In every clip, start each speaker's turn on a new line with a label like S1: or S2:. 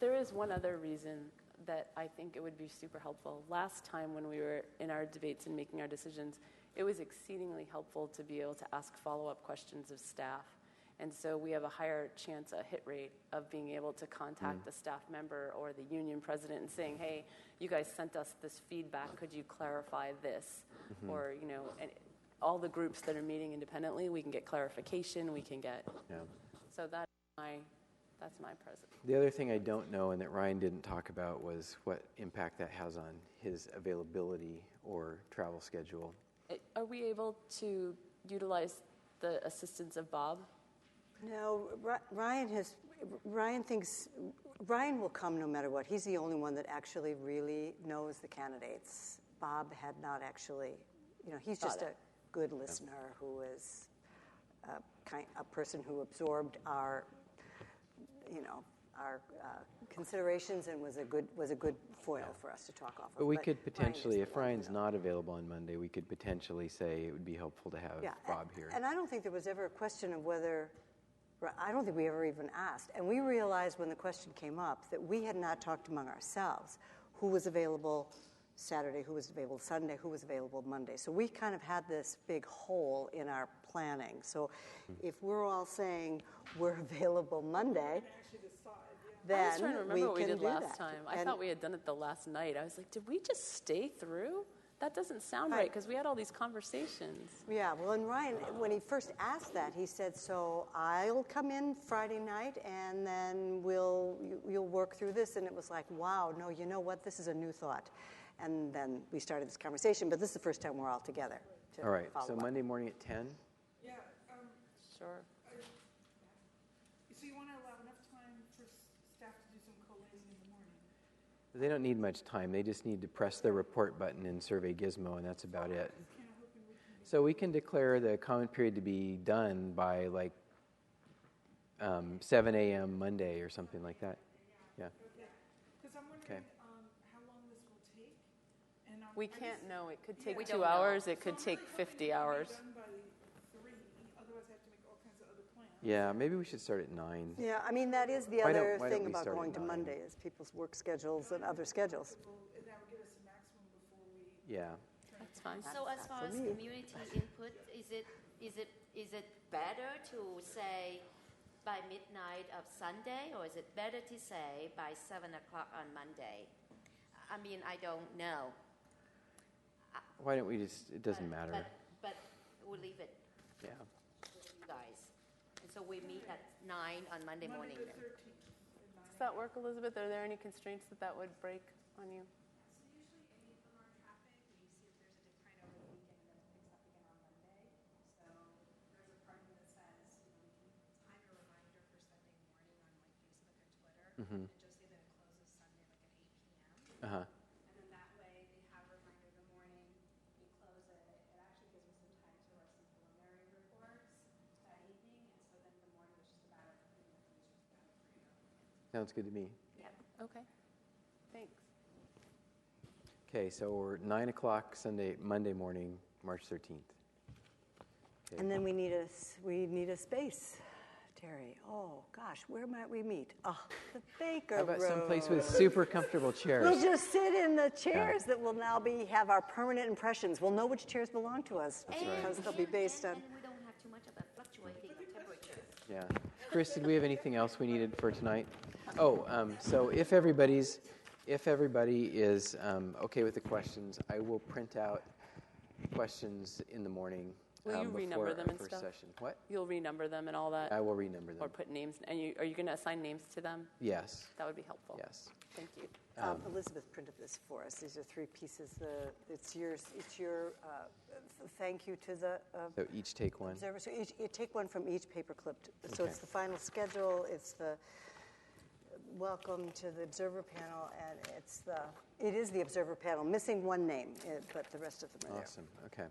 S1: There is one other reason that I think it would be super helpful. Last time when we were in our debates and making our decisions, it was exceedingly helpful to be able to ask follow up questions of staff. And so we have a higher chance, a hit rate of being able to contact a staff member or the union president and saying, hey, you guys sent us this feedback. Could you clarify this? Or, you know, and all the groups that are meeting independently, we can get clarification. We can get,
S2: Yeah.
S1: so that's my, that's my present.
S2: The other thing I don't know and that Ryan didn't talk about was what impact that has on his availability or travel schedule.
S1: Uh, Are we able to utilize the assistance of Bob?
S3: No, Ri- Ryan has. Ryan thinks Ryan will come no matter what. He's the only one that actually really knows the candidates. Bob had not actually. You know, he's just
S1: Got
S3: a
S1: it.
S3: good listener who is a, kind, a person who absorbed our, you know, our uh, considerations and was a good was a good foil for us to talk off of.
S2: But we
S3: Ryan
S2: could
S3: is
S2: potentially,
S3: the
S2: if
S3: one who
S2: Ryan's
S3: knows.
S2: not available on Monday, we could potentially say it would be helpful to have
S3: Yeah,
S2: Bob
S3: a-
S2: here.
S3: And I don't think there was ever a question of whether, right, I don't think we ever even asked. And we realized when the question came up that we had not talked among ourselves who was available Saturday, who was available Sunday, who was available Monday. So we kind of had this big hole in our planning. So if we're all saying we're available Monday,
S1: I
S3: then
S1: was trying to remember
S3: we
S1: what we
S3: can
S1: did
S3: do
S1: last
S3: that.
S1: time. I
S3: And-
S1: thought we had done it the last night. I was like, did we just stay through? That doesn't sound right
S3: Right.
S1: because we had all these conversations.
S3: Yeah, well, and Ryan, when he first asked that, he said, "So I'll come in Friday night, and then we'll you, you'll work through this." And it was like, "Wow, no, you know what? This is a new thought." And then we started this conversation, but this is the first time we're all together. To
S2: All right,
S3: follow
S2: so
S3: up.
S2: Monday morning at 10?
S4: Yeah, um,
S1: Sure.
S4: so you want to allow enough time for s- staff to do some collating in the morning?
S2: They don't need much time. They just need to press the report button in Survey Gizmo, and that's about it.
S4: Kind of hoping we can
S2: So we can declare the comment period to be done by like um, 7 a.m. Monday or something like that. Yeah.
S4: yeah. Because I'm wondering
S2: Okay.
S4: um, how long this will take. And um,
S1: We
S4: I
S1: can't
S4: just-
S1: know. It could take
S4: We
S1: two hours, it could
S4: So I'm
S1: take
S4: really hoping
S1: 50
S4: it can be
S1: hours.
S4: done by three, otherwise I have to make all kinds of other plans.
S2: Yeah, maybe we should start at 9.
S3: Yeah, I mean that is the
S2: Why don't-
S3: other
S2: why don't
S3: thing
S2: we
S3: about
S2: start at
S3: going to
S2: nine?
S3: Monday is people's work schedules and other schedules.
S4: Well, And that would give us a maximum before we.
S2: Yeah.
S1: That's fine.
S5: So as far as
S3: me.
S5: community input, is it, is it, is it better to say by midnight of Sunday, or is it better to say by seven o'clock on Monday? I mean, I don't know.
S2: Why don't we just, it doesn't
S5: but-
S2: matter.
S5: But, but we'll leave it
S2: Yeah.
S5: with you guys. And so we meet at nine on Monday morning
S4: Monday the
S5: then.
S4: 13th at nine.
S1: Does that work, Elizabeth? Are there any constraints that that would break on you?
S6: So usually any of them are traffic, and you see if there's a decline over the weekend, and then it picks up again on Monday. So there's a part of it that says, you know, you can time a reminder for Sunday morning on like Facebook or Twitter,
S2: Mm-hmm.
S6: and just say that it closes Sunday like at eight PM.
S2: Uh huh.
S6: And then that way, they have a reminder in the morning, we close it, it actually gives me some time to write some preliminary reports that evening, and so then the morning is just about, you know, it's just about three hours.
S2: Sounds good to me.
S1: Okay. Thanks.
S2: Okay, so we're 9 o'clock Sunday, Monday morning, March 13th. Okay.
S3: And then we need a s- we need a space, Terry. Oh gosh, where might we meet? Oh, the Baker
S2: How about
S3: Room.
S2: someplace with super comfortable
S3: We'll
S2: chairs?
S3: just sit in the chairs that will now be have our permanent impressions. We'll know which chairs belong to us because they'll be based
S5: And-
S3: on.
S5: And we don't have too much of a fluctuating of temperature.
S2: Yeah. Chris, did we have anything else we needed for tonight? Oh, um, so if everybody's, if everybody is um, okay with the questions, I will print out questions in the morning.
S1: Will you
S2: um,
S1: renumber
S2: before
S1: them
S2: our
S1: and
S2: first
S1: stuff?
S2: session. What?
S1: You'll renumber them and all that?
S2: I will renumber them.
S1: Or put names, and you, are you going to assign names to them?
S2: yes.
S1: That would be helpful.
S2: Yes.
S1: Thank you.
S3: Um, Elizabeth printed this for us. These are three pieces. The it's yours. It's your uh, th- thank you to the uh,
S2: So each take one.
S3: observer. So each, you take one from each paper clip. t- So
S2: Okay.
S3: it's the final schedule. It's the welcome to the observer panel, and it's the it is the observer panel. Missing one name, eh, but the rest of them are
S2: Awesome. Okay.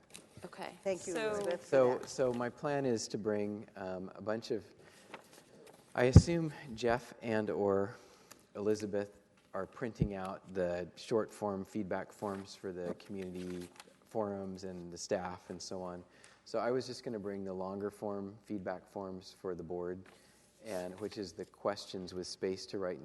S1: Okay.
S3: Thank you,
S1: So-
S3: Elizabeth. for
S2: So,
S3: that.
S2: so my plan is to bring um, a bunch of. I assume Jeff and or Elizabeth are printing out the short form feedback forms for the community forums and the staff and so on. So I was just going to bring the longer form feedback forms for the board, and which is the questions with space to write